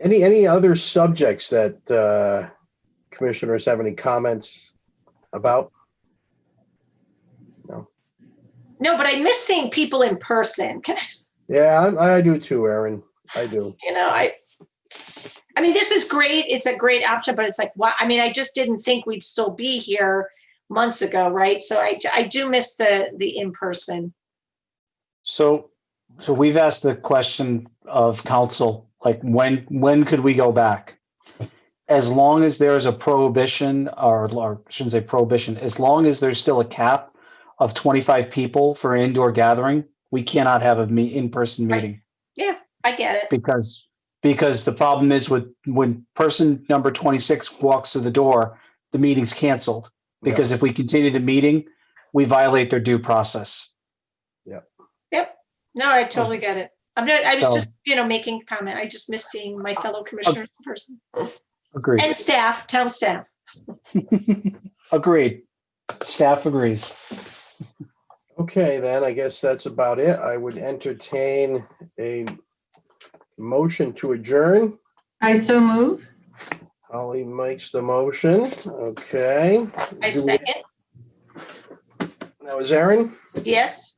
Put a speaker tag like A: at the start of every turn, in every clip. A: Any, any other subjects that uh, commissioners have any comments about?
B: No, but I miss seeing people in person. Can I,
A: Yeah, I'm- I do too, Aaron. I do.
B: you know, I, I mean, this is great. It's a great option, but it's like, wow. I mean, I just didn't think we'd still be here months ago, right? So I, I do miss the, the in-person.
C: So, so we've asked the question of council, like when, when could we go back? As long as there is a prohibition or, or I shouldn't say prohibition, as long as there's still a cap of 25 people for indoor gathering, we cannot have a me, in-person
B: Right.
C: meeting
B: I get it.
C: because, because the problem is with, when person number 26 walks through the door, the meeting's canceled.
A: Yeah.
C: Because if we continue the meeting, we violate their due process.
B: No, I totally get it. I'm not, I
C: So-
B: was just, you know, making a comment. I just miss seeing my
A: Oh,
B: fellow commissioners in person
C: Agreed.
B: and staff, town staff.
C: Agreed. Staff agrees.
A: Okay, then I guess that's about it. I would entertain a motion to adjourn.
D: I so move.
A: Holly makes the motion. Okay.
B: I
A: Do we-
B: second.
A: That was Aaron.
B: Yes.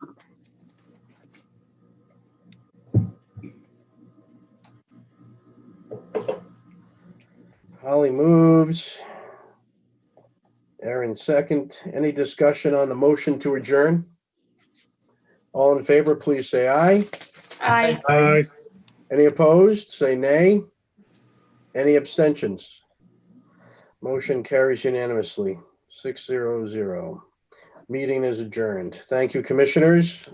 A: Holly moves. Aaron second. Any discussion on the motion to adjourn? All in favor, please say aye.
B: I,
E: Aye.
A: Any opposed, say nay. Any abstentions? Motion carries unanimously, six zero zero. Meeting is adjourned. Thank you, commissioners.